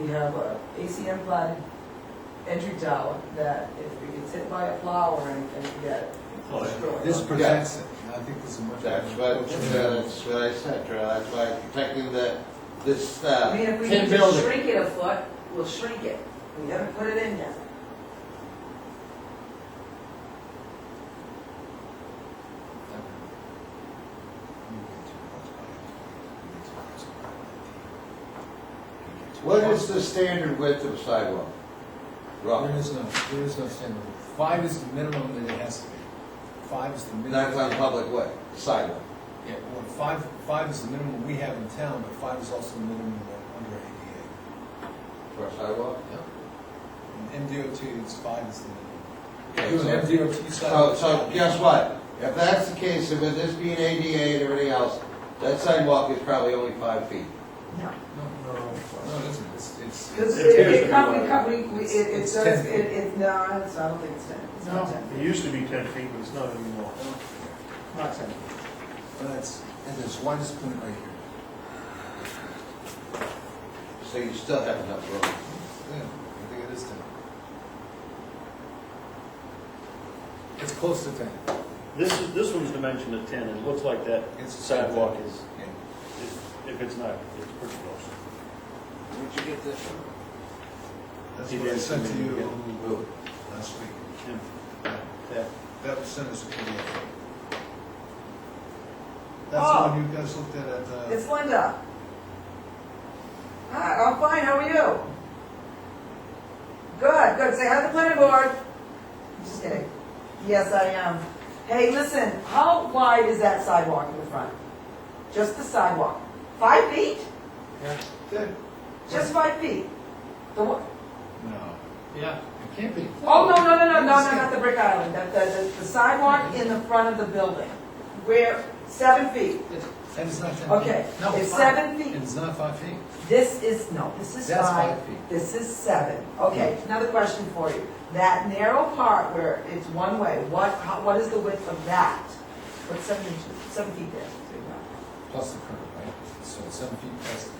We have a ACM flood entry tower that if it gets hit by a flower or anything, you get destroyed. Oh, This protects it, and I think this is much. That's what, uh, that's what I said, Charlie, that's why I'm protecting the, this, uh, I mean, if we tin can just building. shrink it a foot, we'll shrink it. We gotta put it in there. What is the standard width of sidewalk? Rock, There is no, there is no standard. Five is the minimum that it has to be. Five is the minimum. that's on public way, sidewalk. Yeah, well, five, five is the minimum we have in town, but five is also the minimum under ADA. For a sidewalk? In MDOT, it's five is the minimum. Okay, Do so- an MDOT So, sidewalk. so guess what? If that's the case, and with this being ADA and everything else, that sidewalk is probably only five feet. No, no, no, it isn't. It's, it's. Because It it, appears to it be come, like it come, we, we- it, it It's does, ten. it, it, no, it's, I don't think it's ten, it's not ten. It used to be ten feet, but it's not anymore. Not ten. Well, it's, and there's one just put it right here. So you still have enough room. Yeah, I think it is ten. It's close to ten. This is, this one's dimension of ten, and it looks like that It's- sidewalk is, Yeah. is- if it's not, it's pretty close. Where'd you get this from? That's It what I is sent to ten, you yeah. Lou, last week. And That, that- that was sent as a PDF. That's the Oh. one you guys looked at at, uh, It's Linda. Hi, I'm fine, how are you? Good, good, say hi to the planning board. Just kidding. Yes, I am. Hey, listen, how wide is that sidewalk in the front? Just the sidewalk? Five feet? that- Just five feet? The one, no. Yeah, It can't be. oh, no, no, no, no, no, no, not the brick island, the, the, the sidewalk in the front of the building. Where, seven feet, And it's not ten feet. okay. No, It's five. seven feet. It's not five feet? This is, no, this is That's five, five feet. this is seven. Okay, another question for you. That narrow part where it's one way, what, how- what is the width of that? What's seven inches, seven feet there? Plus the curb, right? So it's seven feet plus the curb.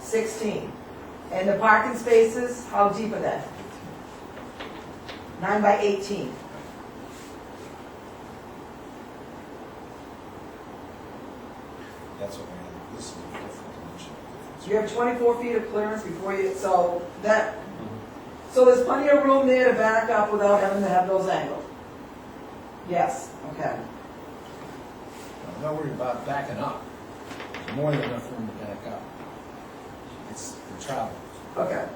Sixteen. And the parking spaces, how deep are they? Nine by eighteen. That's what we have, this is a different dimension. So you have twenty-four feet of clearance before you, so that, Mm-hmm. so there's plenty of room there to back up without having to have those angled? Yes, okay. I'm not worried about backing up. There's More than enough room to back up. It's the travel. Okay.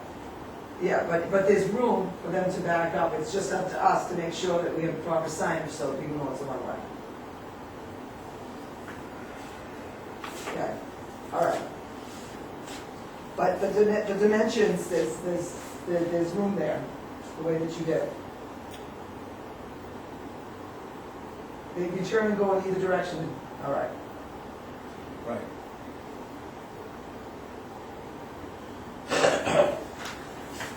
Yeah, but, but there's room for them to back up, it's just up to us to make sure that we have proper signage, so people know it's a one-way. Okay, all right. But the, dimen- the dimensions, there's, there's, there- there's room there, the way that you did it. They can turn and go in either direction, all right. Right.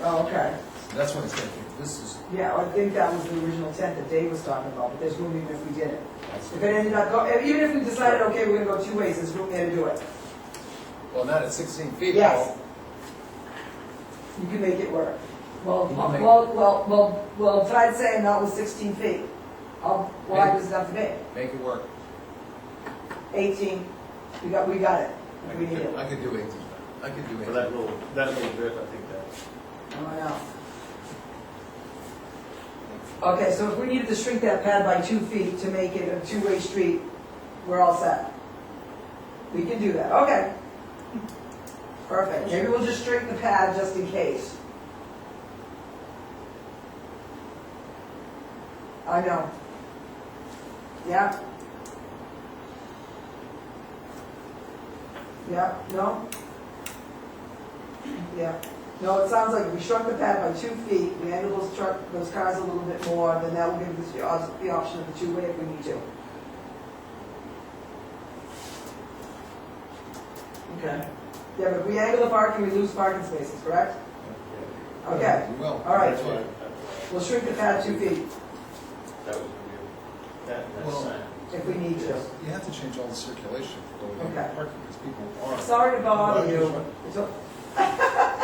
Oh, okay. That's what it's gonna be. This is, Yeah, I think that was the original intent that Dave was talking about, but there's room even if we did it. that's, If it ended up, go- even if we decided, okay, we're gonna go two ways, there's room there to do it. well, not at sixteen feet. Yes. You can make it work. Well, You can make- well, well, well, well, if I'd say that was sixteen feet, how wide Maybe. was enough to make? Make it work. Eighteen, we got, we got it, I if we could need do- it. I could do eighteen. I could do For eighteen. that little, that little bit, I think that, Oh, yeah. Okay, so if we needed to shrink that pad by two feet to make it a two-way street, we're all set. We can do that, okay. Perfect, maybe we'll just shrink the pad just in case. I know. Yeah? Yeah, no? Yeah. No, it sounds like if we shrunk the pad by two feet, we handle those truck, those cars a little bit more, then that will give us the op- the option of the two-way if we need to. Okay. Yeah, but if we angle the parking, we lose parking spaces, correct? Okay, You will. all right, that's why, we'll shrink the pad two feet that was weird. That, that Well- sign. if we need to. You have to change all the circulation for the way Okay. parking, because people are. Sorry to bother you. It's o-